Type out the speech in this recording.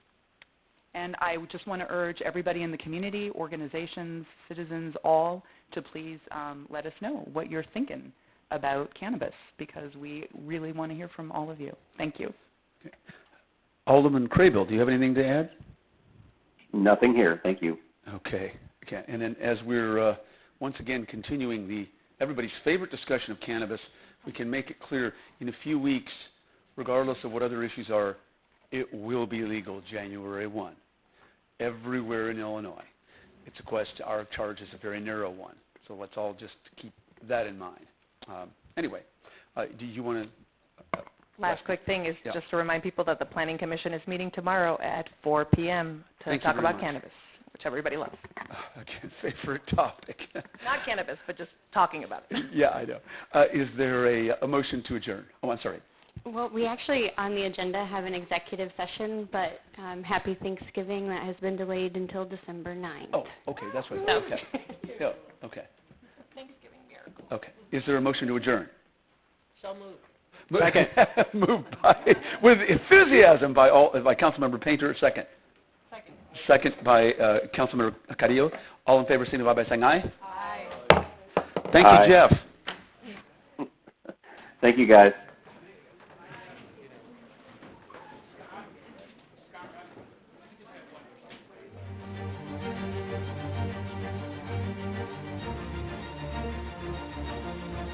And I would just want to urge everybody in the community, organizations, citizens, all, to please um, let us know what you're thinking about cannabis, because we really want to hear from all of you. Thank you. Alderman Crable, do you have anything to add? Nothing here, thank you. Okay. Okay. And then as we're uh, once again continuing the everybody's favorite discussion of cannabis, we can make it clear in a few weeks, regardless of what other issues are, it will be legal January 1 everywhere in Illinois. It's a question, our charge is a very narrow one. So let's all just keep that in mind. Um, anyway, uh, do you want to? Uh, Last quick thing is Yeah. just to remind people that the Planning Commission is meeting tomorrow at 4 p.m. to Thank you talk very about much. cannabis, which everybody loves. again, favorite topic. Not cannabis, but just talking about it. yeah, I know. Uh, is there a, a motion to adjourn? Oh, I'm sorry. Well, we actually, on the agenda, have an executive session, but um, happy Thanksgiving, that has been delayed until December 9th. Oh, okay, that's right. Okay. Yeah, Oh, okay, Thanksgiving miracle. okay. Is there a motion to adjourn? So moved. Second. Moved by, with enthusiasm by all, by Councilmember Painter, second. Second. Second by uh, Councilmember Carrillo. All in favor, signify by saying aye. Aye. Thank Aye. you, Jeff. Thank you, guys.